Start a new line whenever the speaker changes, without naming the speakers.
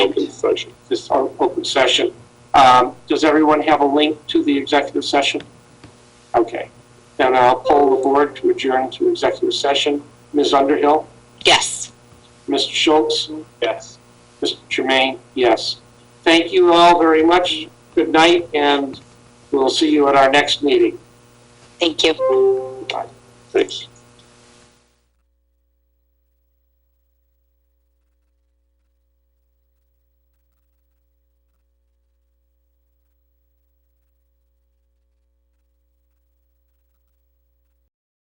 session, this open session. Um, Does everyone have a link to the executive session? Okay. Then I'll poll the board to adjourn to executive session. Ms. Underhill?
Yes.
Mr. Schultz? Yes. Mr. Jermaine? Yes. Thank you all very much. Good night, and we'll see you at our next meeting.
Thank you.
Thanks.